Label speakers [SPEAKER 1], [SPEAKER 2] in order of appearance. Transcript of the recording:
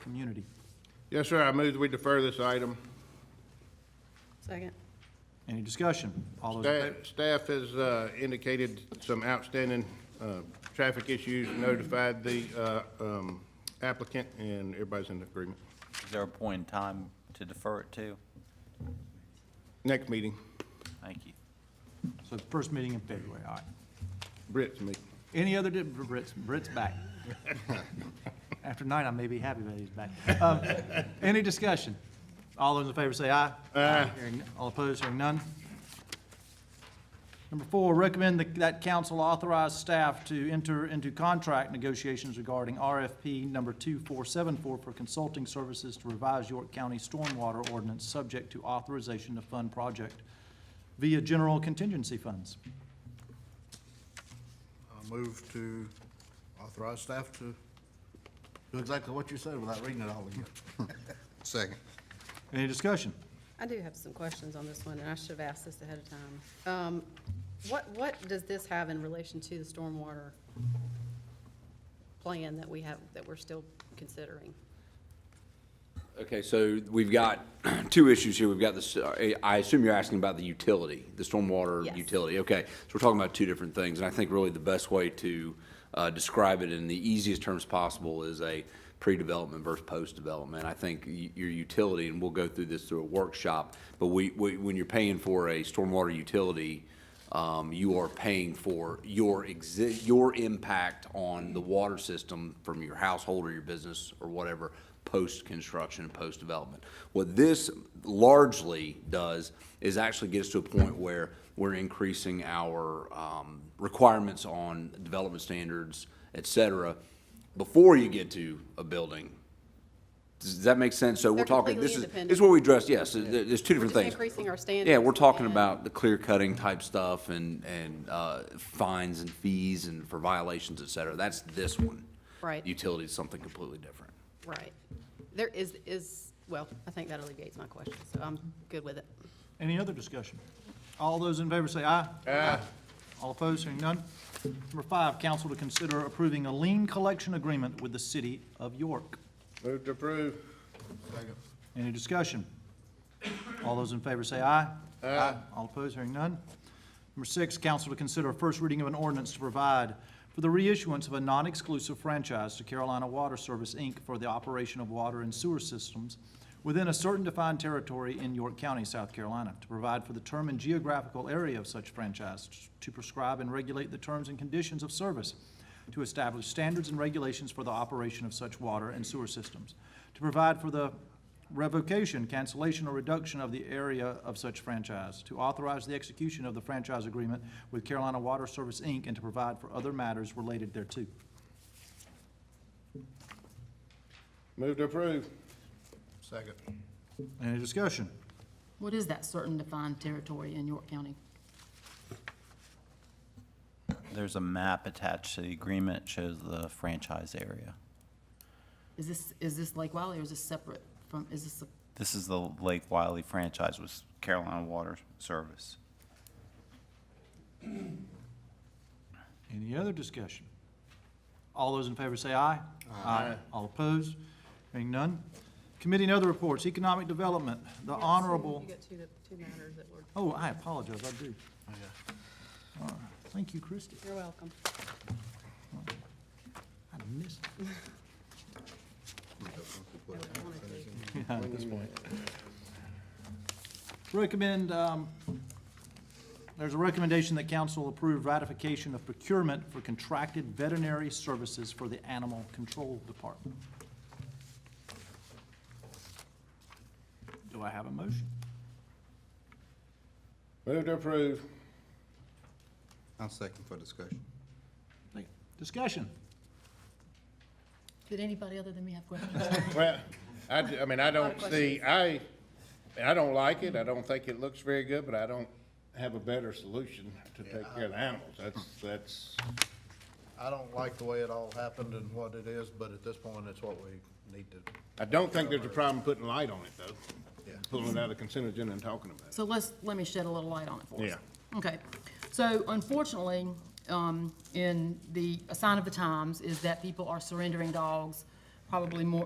[SPEAKER 1] community.
[SPEAKER 2] Yes, sir, I move that we defer this item.
[SPEAKER 3] Second.
[SPEAKER 1] Any discussion? All those in favor?
[SPEAKER 2] Staff staff has uh, indicated some outstanding uh, traffic issues, notified the uh, um, applicant, and everybody's in agreement.
[SPEAKER 4] Is there a point in time to defer it to?
[SPEAKER 2] Next meeting,
[SPEAKER 4] Thank you.
[SPEAKER 1] So the first meeting in February, all right.
[SPEAKER 2] Britt's meeting.
[SPEAKER 1] Any other, di- Brett's, Brett's back. After night, I may be happy that he's back. Um, Any discussion? All those in favor say aye. Aye. All opposed, hearing none. Number four, recommend that- that council authorize staff to enter into contract negotiations regarding RFP number 2474 for consulting services to revise York County stormwater ordinance, subject to authorization to fund project via general contingency funds.
[SPEAKER 5] I move to authorize staff to do exactly what you said without reading it all again.
[SPEAKER 6] Second.
[SPEAKER 1] Any discussion?
[SPEAKER 3] I do have some questions on this one, and I should have asked this ahead of time. Um, What, what does this have in relation to the stormwater plan that we have, that we're still considering?
[SPEAKER 7] Okay, so we've got two issues here. We've got this, uh, I assume you're asking about the utility, the stormwater
[SPEAKER 3] Yes.
[SPEAKER 7] utility. Okay, so we're talking about two different things, and I think really the best way to uh, describe it in the easiest terms possible is a pre-development versus post-development. I think y- your utility, and we'll go through this through a workshop, but we, we- when you're paying for a stormwater utility, um, you are paying for your exi, your impact on the water system from your household or your business or whatever, post-construction and post-development. What this largely does is actually gets to a point where we're increasing our, um, requirements on development standards, et cetera, before you get to a building. Does that make sense? So we're
[SPEAKER 3] They're
[SPEAKER 7] talking,
[SPEAKER 3] completely
[SPEAKER 7] this is,
[SPEAKER 3] independent.
[SPEAKER 7] this is what we addressed, yes, there- there's two different
[SPEAKER 3] just
[SPEAKER 7] things.
[SPEAKER 3] increasing our standards
[SPEAKER 7] Yeah, we're talking
[SPEAKER 3] and-
[SPEAKER 7] about the clear cutting type stuff and, and, uh, fines and fees and for violations, et cetera. That's this one.
[SPEAKER 3] Right.
[SPEAKER 7] Utility is something completely different.
[SPEAKER 3] Right. There is, is, well, I think that alleviates my question, so I'm good with it.
[SPEAKER 1] Any other discussion? All those in favor say aye. Aye. All opposed, hearing none. Number five, council to consider approving a lien collection agreement with the city of York.
[SPEAKER 2] Move to approve.
[SPEAKER 1] Any discussion? All those in favor say aye. Aye. All opposed, hearing none. Number six, council to consider a first reading of an ordinance to provide for the reissuance of a non-exclusive franchise to Carolina Water Service, Inc. for the operation of water and sewer systems within a certain defined territory in York County, South Carolina, to provide for the term and geographical area of such franchise, to prescribe and regulate the terms and conditions of service, to establish standards and regulations for the operation of such water and sewer systems, to provide for the revocation, cancellation, or reduction of the area of such franchise, to authorize the execution of the franchise agreement with Carolina Water Service, Inc., and to provide for other matters related thereto.
[SPEAKER 2] Move to approve.
[SPEAKER 5] Second.
[SPEAKER 1] Any discussion?
[SPEAKER 8] What is that certain defined territory in York County?
[SPEAKER 4] There's a map attached to the agreement, It shows the franchise area.
[SPEAKER 8] Is this, is this Lake Wiley or is this separate from, is this, a-
[SPEAKER 4] This is the Lake Wiley franchise with Carolina Water Service.
[SPEAKER 1] Any other discussion? All those in favor say aye. Aye. All opposed? Hearing none. Committee and other reports, Economic Development, the Honorable,
[SPEAKER 3] You got two, two matters that were.
[SPEAKER 1] oh, I apologize, I do. All right. Thank you, Christie.
[SPEAKER 3] You're welcome.
[SPEAKER 1] I missed. it. at this point. Recommend, um, there's a recommendation that council approve ratification of procurement for contracted veterinary services for the Animal Control Department. Do I have a motion?
[SPEAKER 2] Move to approve.
[SPEAKER 6] I'll second for discussion.
[SPEAKER 1] Discussion?
[SPEAKER 8] did anybody other than me have questions?
[SPEAKER 2] Well, I, d- I mean, I don't see, I, I don't like it, I don't think it looks very good, but I don't have a better solution to take care of the animals. That's, that's,
[SPEAKER 5] I don't like the way it all happened and what it is, but at this point, it's what we need to,
[SPEAKER 2] I don't think there's a problem putting light on it, though. Pulling it out of consent agenda and talking about it.
[SPEAKER 8] So let's, let me shed a little light on it for us.
[SPEAKER 2] Yeah.
[SPEAKER 8] Okay, so unfortunately, um, in the, a sign of the times is that people are surrendering dogs probably more,